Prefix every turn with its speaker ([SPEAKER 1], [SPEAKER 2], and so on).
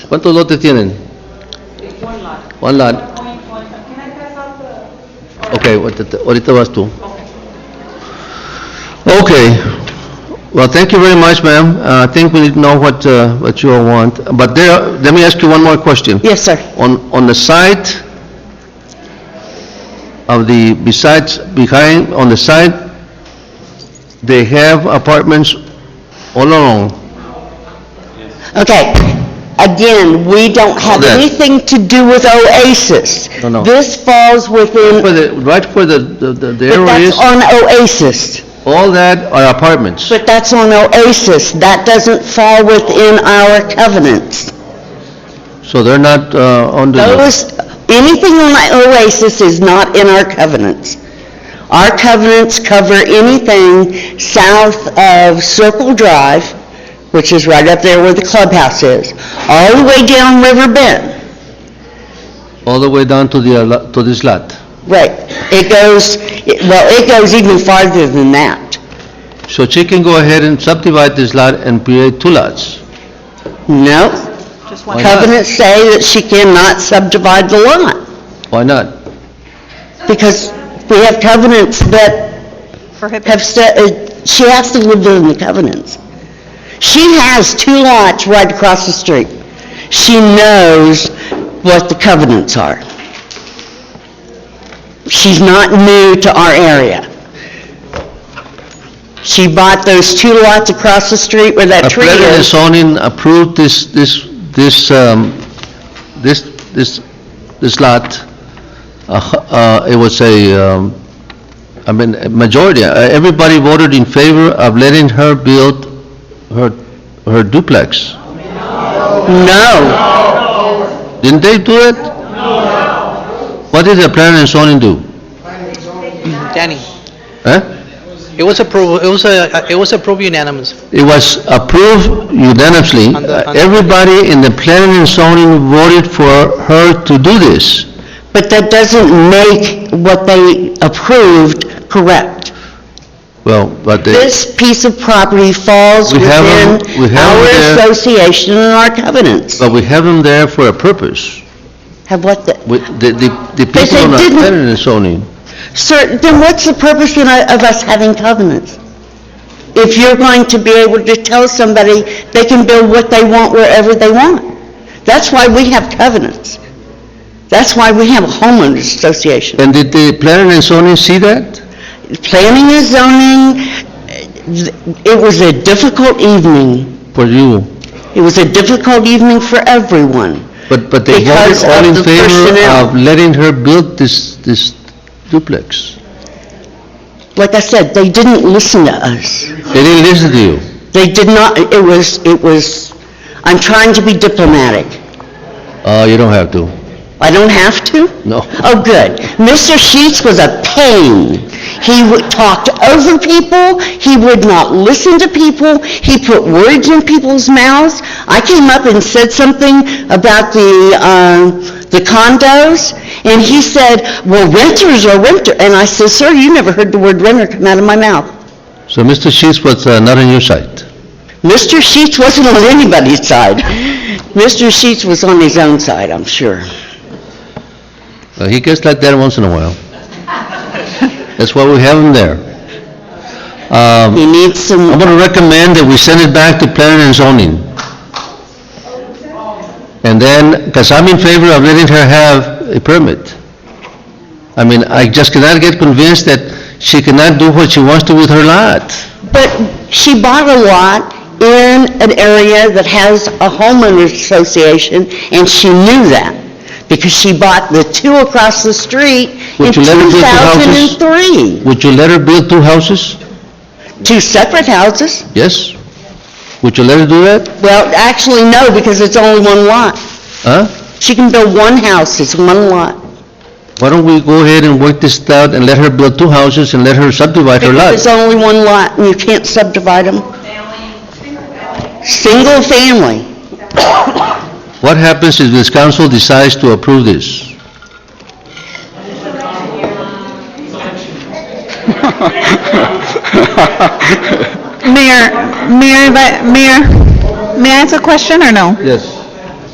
[SPEAKER 1] ¿Cuántos lotes tienen?
[SPEAKER 2] It's one lot.
[SPEAKER 1] One lot.
[SPEAKER 2] Going, going, can I pass out the? or-
[SPEAKER 1] Ok, ahorita- ahorita vas tú.
[SPEAKER 2] Okay.
[SPEAKER 1] Okay. Well, thank you very much, ma'am. Uh, I think we need to know what, uh, what you all want. But there, let me ask you one more question.
[SPEAKER 3] Yes, sir.
[SPEAKER 1] On, on the side of the, besides, behind, on the side, they have apartments all along.
[SPEAKER 3] Okay, again, we don't have
[SPEAKER 1] Yes.
[SPEAKER 3] anything to do with Oasis.
[SPEAKER 1] No, no.
[SPEAKER 3] This falls
[SPEAKER 1] Where
[SPEAKER 3] within,
[SPEAKER 1] the, right where the, the- the the
[SPEAKER 3] but
[SPEAKER 1] arrow is,
[SPEAKER 3] that's on Oasis.
[SPEAKER 1] all that are apartments.
[SPEAKER 3] But that's on Oasis. That doesn't fall within our covenants.
[SPEAKER 1] So they're not, uh, under the,
[SPEAKER 3] Those, anything on Oasis is not in our covenants. Our covenants cover anything south of Circle Drive, which is right up there where the clubhouse is, all the way down River Bend.
[SPEAKER 1] all the way down to the, uh, lo- to this lot.
[SPEAKER 3] Right, it goes, it- well, it goes even farther than that.
[SPEAKER 1] So she can go ahead and subdivide this lot and create two lots.
[SPEAKER 3] No,
[SPEAKER 2] Just
[SPEAKER 1] Why
[SPEAKER 2] one.
[SPEAKER 1] not?
[SPEAKER 3] covenants say that she cannot subdivide the lot,
[SPEAKER 1] Why not?
[SPEAKER 3] because we have covenants that
[SPEAKER 2] Prohibit.
[SPEAKER 3] have, sta- uh, she has to live within the covenants. She has two lots right across the street. She knows what the covenants are. She's not new to our area. She bought those two lots across the street where that
[SPEAKER 1] A
[SPEAKER 3] tree
[SPEAKER 1] planning and
[SPEAKER 3] is.
[SPEAKER 1] zoning approved this, this, this, um, this, this, this lot. Uh, uh, it was a, um, I mean, a majority, uh, everybody voted in favor of letting her build her, her duplex.
[SPEAKER 3] No,
[SPEAKER 1] Didn't they do it? No. What did the planning and zoning do?
[SPEAKER 4] Danny,
[SPEAKER 1] Huh?
[SPEAKER 4] it was approved, it was, uh, it was approved unanimous.
[SPEAKER 1] It was approved unanimously.
[SPEAKER 4] On the- on the-
[SPEAKER 1] Everybody in the planning and zoning voted for her to do this.
[SPEAKER 3] but that doesn't make what they approved correct.
[SPEAKER 1] Well, but they,
[SPEAKER 3] This piece of property falls
[SPEAKER 1] We have 'em-
[SPEAKER 3] within
[SPEAKER 1] we have 'em
[SPEAKER 3] our
[SPEAKER 1] there.
[SPEAKER 3] association and our covenants.
[SPEAKER 1] but we have them there for a purpose.
[SPEAKER 3] Have what the,
[SPEAKER 1] We- The, the the
[SPEAKER 3] But
[SPEAKER 1] people
[SPEAKER 3] they
[SPEAKER 1] on the
[SPEAKER 3] didn't.
[SPEAKER 1] planning and zoning,
[SPEAKER 3] sir, then what's the purpose then of us having covenants? If you're going to be able to tell somebody they can build what they want wherever they want. That's why we have covenants. That's why we have a homeowners association.
[SPEAKER 1] and did the planning and zoning see that?
[SPEAKER 3] planning and zoning, it was a difficult evening.
[SPEAKER 1] For you?
[SPEAKER 3] It was a difficult evening for everyone.
[SPEAKER 1] But, but they voted
[SPEAKER 3] Because
[SPEAKER 1] all
[SPEAKER 3] of
[SPEAKER 1] in
[SPEAKER 3] the
[SPEAKER 1] favor
[SPEAKER 3] personnel.
[SPEAKER 1] of letting her build this, this duplex.
[SPEAKER 3] Like I said, they didn't listen to us.
[SPEAKER 1] They didn't listen to you.
[SPEAKER 3] They did not, it was, it was, I'm trying to be diplomatic.
[SPEAKER 1] Oh, you don't have to.
[SPEAKER 3] I don't have to?
[SPEAKER 1] No.
[SPEAKER 3] Oh, good. Mr. Sheets was a pain. He would- talked over people, he would not listen to people, he put words in people's mouths. I came up and said something about the, um, the condos, and he said, "Well, renters are renter," and I said, "Sir, you never heard the word renter come out of my mouth."
[SPEAKER 1] So Mr. Sheets was uh, not on your side.
[SPEAKER 3] Mr. Sheets wasn't on anybody's side. Mr. Sheets was on his own side, I'm sure.
[SPEAKER 1] Uh, He gets like that once in a while. That's why we have him there. Um,
[SPEAKER 3] He needs some...
[SPEAKER 1] I'm gonna recommend that we send it back to planning and zoning. And then, because I'm in favor of letting her have a permit. I mean, I just cannot get convinced that she cannot do what she wants to with her lot.
[SPEAKER 3] But she bought a lot in an area that has a homeowners association, and she knew that, because she bought the two across the street in
[SPEAKER 1] Would you let her build two houses?
[SPEAKER 3] 2003.
[SPEAKER 1] Would you let her build two houses?
[SPEAKER 3] Two separate houses?
[SPEAKER 1] Yes? Would you let her do that?
[SPEAKER 3] Well, actually, no, because it's only one lot.
[SPEAKER 1] Huh?
[SPEAKER 3] She can build one house, it's one lot.
[SPEAKER 1] Why don't we go ahead and work this out and let her build two houses and let her subdivide her lot?
[SPEAKER 3] Because it's only one lot, and you can't subdivide them. Single family.
[SPEAKER 1] What happens if this council decides to approve this?
[SPEAKER 5] Mayor, Mayor, if I- Mayor, may I ask a question or no?
[SPEAKER 1] Yes.